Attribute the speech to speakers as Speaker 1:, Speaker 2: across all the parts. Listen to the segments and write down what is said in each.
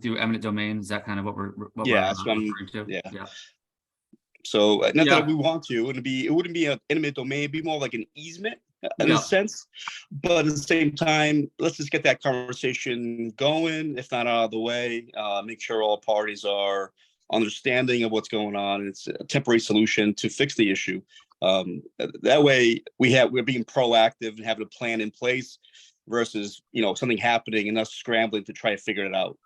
Speaker 1: do eminent domain? Is that kind of what we're? what we're,
Speaker 2: Yeah,
Speaker 1: uh,
Speaker 2: that's what I'm-
Speaker 1: referring to?
Speaker 2: yeah. So uh, not
Speaker 1: Yeah.
Speaker 2: that we want to, it wouldn't be it wouldn't be an intimate domain, it'd be more like an easement uh, in
Speaker 1: Yeah.
Speaker 2: a sense. But at the same time, let's just get that conversation going, if not out of the way. Uh, make sure all parties are understanding of what's going on. and It's a temporary solution to fix the issue. Um, th- that way we have we're being proactive and having a plan in place versus you know something happening and us scrambling to try to figure it out.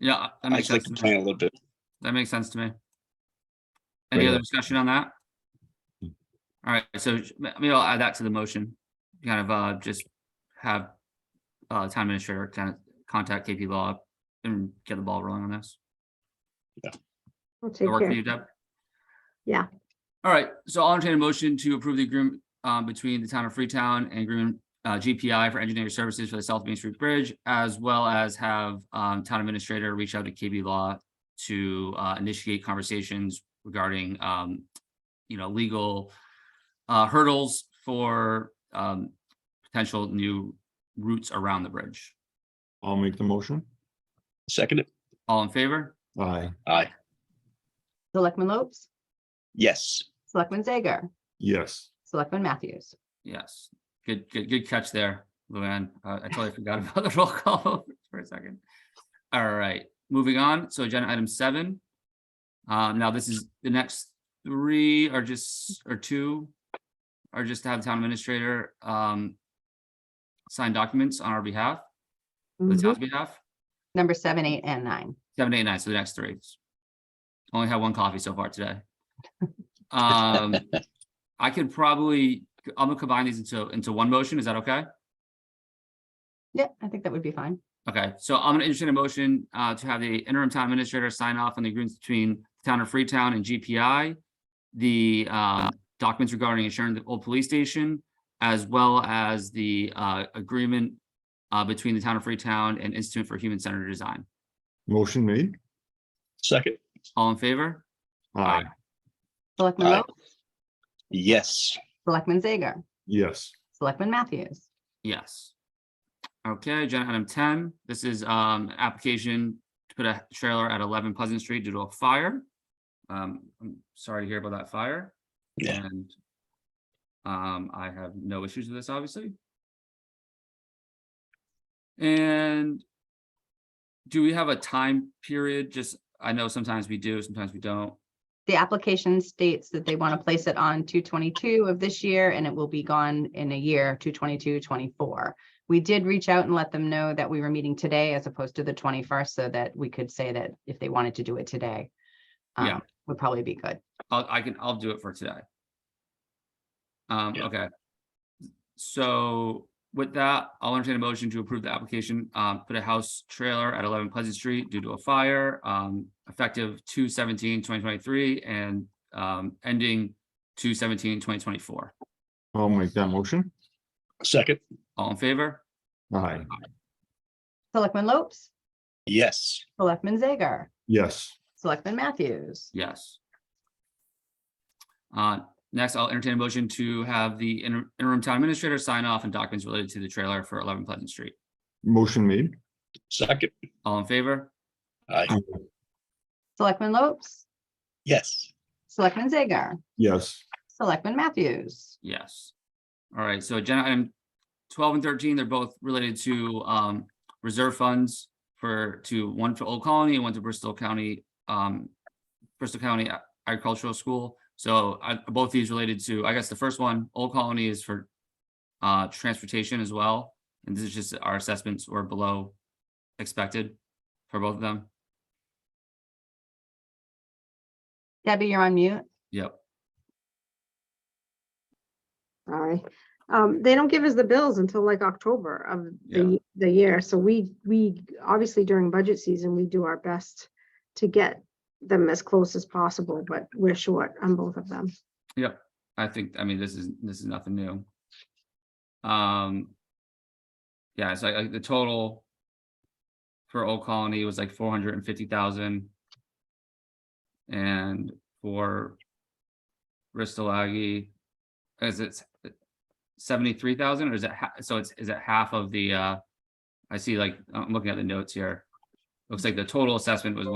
Speaker 1: Yeah, that
Speaker 2: I
Speaker 1: makes
Speaker 2: just like
Speaker 1: sense. to
Speaker 2: to
Speaker 1: me.
Speaker 2: plan a little bit.
Speaker 1: That makes sense to me. Any
Speaker 3: Right.
Speaker 1: other discussion on that? All right, so sh- ma- maybe I'll add that to the motion, kind of uh just have uh town administrator kind of contact KP Law and get the ball rolling on this.
Speaker 4: I'll take
Speaker 1: That work for
Speaker 4: care.
Speaker 1: you, Deb?
Speaker 4: Yeah.
Speaker 1: All right, so I'll entertain a motion to approve the agreement um between the town of Freetown and agreement uh GPI for engineering services for the South Main Street Bridge, as well as have um town administrator reach out to KB Law to uh initiate conversations regarding um, you know, legal uh hurdles for um potential new routes around the bridge.
Speaker 3: I'll make the motion.
Speaker 2: Second it?
Speaker 1: All in favor?
Speaker 3: Aye,
Speaker 2: Aye.
Speaker 4: Selectman Lopes,
Speaker 2: Yes.
Speaker 4: Selectman Zager,
Speaker 3: yes.
Speaker 4: Selectman Matthews.
Speaker 1: Yes, good, good, good catch there, Luann. Uh, I totally forgot about the roll call for a second. All right, moving on. So agenda item seven. Um, now this is the next three are just, or two. Are just to have town administrator, um. Sign documents on our behalf, the
Speaker 4: Mm-hmm.
Speaker 1: town's behalf,
Speaker 4: Number seven, eight, and nine.
Speaker 1: seven, eight, nine, so the next three. Only had one coffee so far today. Um, I could probably, I'm gonna combine these into, into one motion. Is that okay?
Speaker 4: Yeah, I think that would be fine.
Speaker 1: Okay, so I'm gonna entertain a motion uh to have the interim town administrator sign off on the agreements between the town of Freetown and GPI. The uh documents regarding insuring the old police station, as well as the uh agreement. Uh between the town of Freetown and Institute for Human Centered Design.
Speaker 3: Motion made.
Speaker 2: Second.
Speaker 1: All in favor?
Speaker 3: Aye,
Speaker 4: Selectman
Speaker 2: Aye.
Speaker 4: Lopes,
Speaker 2: Yes.
Speaker 4: Selectman Zager,
Speaker 3: yes.
Speaker 4: Selectman Matthews.
Speaker 1: Yes. Okay, agenda item ten, this is um an application to put a trailer at eleven Pleasant Street due to a fire. Um, I'm sorry to hear about that fire.
Speaker 2: Yeah.
Speaker 1: And um, I have no issues with this, obviously. And do we have a time period? Just, I know sometimes we do, sometimes we don't.
Speaker 4: The application states that they want to place it on two twenty-two of this year and it will be gone in a year, 222-24. We did reach out and let them know that we were meeting today as opposed to the twenty-first, so that we could say that if they wanted to do it today.
Speaker 1: Yeah.
Speaker 4: um, Would probably be good.
Speaker 1: I'll, I can, I'll do it for today. Um,
Speaker 2: Yeah.
Speaker 1: okay. So with that, I'll entertain a motion to approve the application, um, put a house trailer at eleven Pleasant Street due to a fire, um, effective 2023, and, um, ending 2024.
Speaker 3: I'll make that motion.
Speaker 2: Second.
Speaker 1: All in favor?
Speaker 3: Aye,
Speaker 4: Selectman Lopes,
Speaker 2: Yes.
Speaker 4: Selectman Zager,
Speaker 3: yes.
Speaker 4: Selectman Matthews.
Speaker 1: Yes. Uh, next, I'll entertain a motion to have the inter- interim town administrator sign off on documents related to the trailer for eleven Pleasant Street.
Speaker 3: Motion made.
Speaker 2: Second.
Speaker 1: All in favor?
Speaker 2: Aye.
Speaker 4: Selectman Lopes,
Speaker 2: Yes.
Speaker 4: Selectman Zager,
Speaker 3: Yes,
Speaker 4: Selectman Matthews.
Speaker 1: Yes. All right, so agenda item twelve and thirteen, they're both related to um reserve funds for to one for Old Colony and one to Bristol County um Bristol County Agricultural School. So I both these related to, I guess the first one, Old Colony is for uh transportation as well. And this is just our assessments were below expected for both of them.
Speaker 4: Debbie, you're on mute.
Speaker 1: Yep.
Speaker 5: Sorry. Um, they don't give us the bills until like October of
Speaker 1: Yeah.
Speaker 5: the, y- the year, so we, we, obviously during budget season, we do our best to get them as close as possible, but we're short on both of them.
Speaker 1: I think, I mean, this is, this is nothing new. Um. Yeah, so like the total. For Old Colony was like four hundred and fifty thousand. And for. Bristol Aggie. Is it seventy-three thousand or is it, ha- so it's, is it half of the, uh? I see like, I'm looking at the notes here. looks like the total assessment was